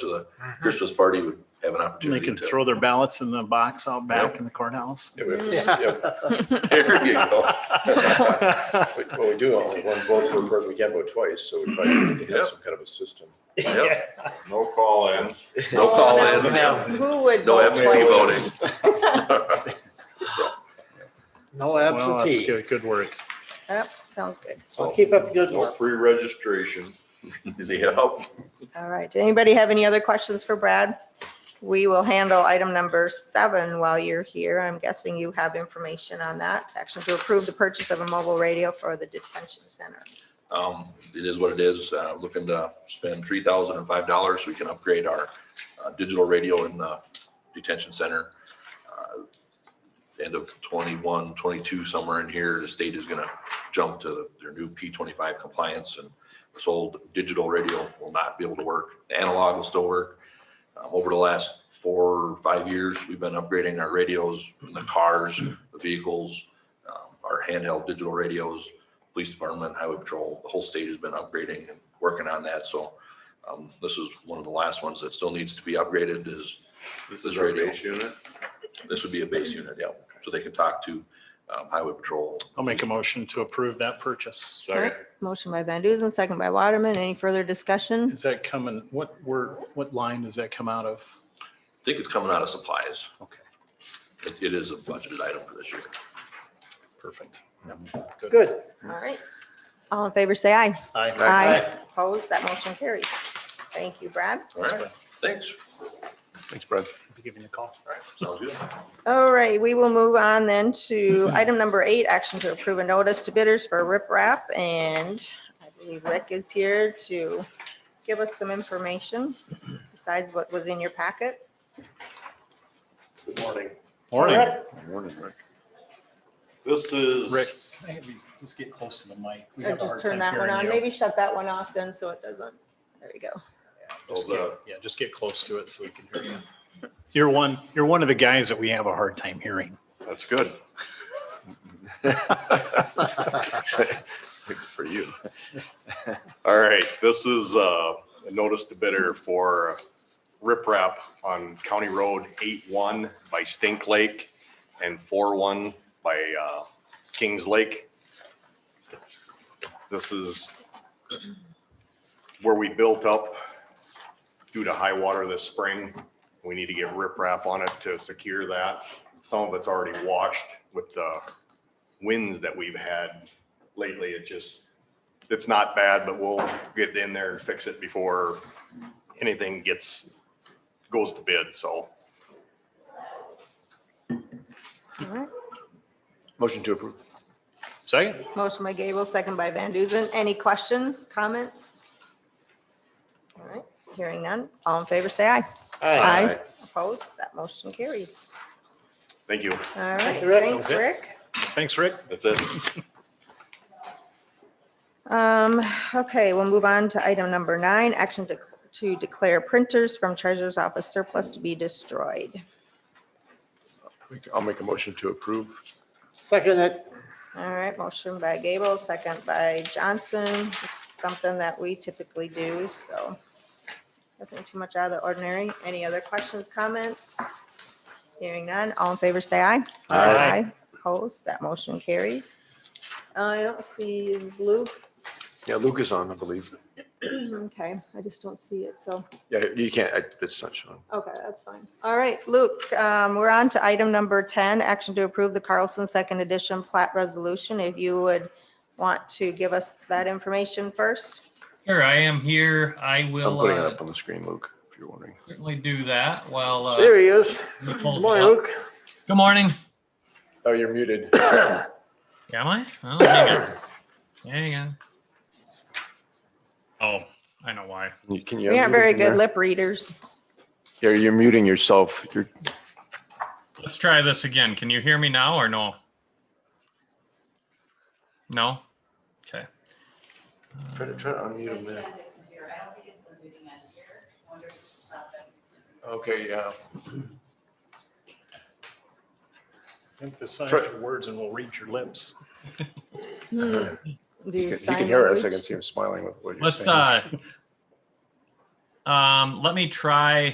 to the Uh-huh. Mm-hmm. Christmas party would have an And They opportunity can to. throw their ballots in the box out back Yep. in the courthouse. Yeah, we have to- yeah. There you go. Well, Well, we do only one vote per person. We can't vote twice, so we probably need to have some kind of a system. Yep. No call-ins. No call-ins, no now- now, Who would vote absentee twice? voting. No Well, that's absentee. good, good work. Yep, sounds good. So keep up the good No work. pre-registration. Yeah. All right. Anybody have any other questions for Brad? We will handle item number seven while you're here. I'm guessing you have information on that. Action to approve the purchase of a mobile radio for the detention center. Um, it is what it is. Uh, looking to spend three thousand and five dollars. We can upgrade our uh, digital radio in the detention center. Uh, End of 21, 22 somewhere in here, the state is gonna jump to their new P twenty-five compliance and this old digital radio will not be able to work. The Analog will still work. Um, over the last four, or five years, we've been upgrading our radios, in the cars, the vehicles, um, our handheld digital radios police department, highway patrol, the whole state has been upgrading and working on that, so um, this is one of the last ones that still needs to be upgraded is, This This is our radio. base unit. this would be a base unit, yeah, so they can talk to um, highway patrol. I'll make a motion to approve that purchase. Second. Motion by Van Duzen, second by Waterman. Any further discussion? Is that coming, what word, what line does that come out of? I think it's coming out of supplies. Okay. It, it is a budgeted item for this year. Perfect. Good. All right. All in favor, say aye. Aye. Aye. Opposed? That motion carries. Thank you, Brad. All right, thanks. Thanks, Brad. Be Giving you a call. All right, sounds good. All right, we will move on then to item number eight, action to approve a notice to bidders for riprap. And I believe Rick is here to give us some information besides what was in your packet. Good morning. Morning. Morning, Rick. This is. Rick. Hey, if you Just get close to the mic. We Or have a just hard turn time that one hearing on. you. Maybe shut that one off then so it doesn't. There we go. Just get- Yeah, just get close to it so we can hear you. You're one, you're one of the guys that we have a hard time hearing. That's good. For you. All right, this is uh, a notice to bidder for riprap on County Road 8-1 by Stink Lake and 4-1 by uh, Kings Lake. This is where we built up due to high water this spring. We need to get riprap on it to secure that. Some of it's already washed with the winds that we've had lately. It just it's not bad, but we'll get in there and fix it before anything gets, goes to bid, so. All right. Motion to approve. Second? Motion by Gable, second by Van Duzen. Any questions, comments? All right, hearing none. All in favor, say aye. Aye. Opposed? That motion carries. Thank you. All right, you, Rick. thanks, That was it. Rick. Thanks, Rick. That's it. Um, okay, we'll move on to item number nine, action to, to declare printers from treasurer's office surplus to be destroyed. uh, I'll make a motion to approve. Second it. All right, motion by Gable, second by Johnson, This is something that we typically do, so. Nothing too much out of the ordinary. Any other questions, comments? Hearing none, all in favor, say aye. Aye. Opposed, that motion carries. Uh, I don't see is Luke. Yeah, Luke is on, I believe. Okay, I just don't see it, so. Yeah, you can't, I- it's not shown. Okay, that's fine. All right, Luke, um, we're on to item number 10, action to approve the Carlson Second Edition plat resolution. If you would want to give us that information first. Sure, I am here. I I'm will putting it uh, up on the screen, Luke, if you're wondering. certainly do that while. uh, There he is. you pull Good it morning, up. Luke. Good morning. Oh, you're muted. Am I? Oh, hang on. Hang on. Oh, I know why. You- Can you? We aren't unmute very from there? good lip readers. Yeah, you're muting yourself. You're, Let's try this again. Can you hear me now or no? No? Okay. try to, try to unmute him there. Okay, yeah. Emphasize Try- your words and we'll read your lips. Hmm. Do He can- you he can sign hear us. I language? can see him smiling with what you're Let's, saying. uh, Um, let me try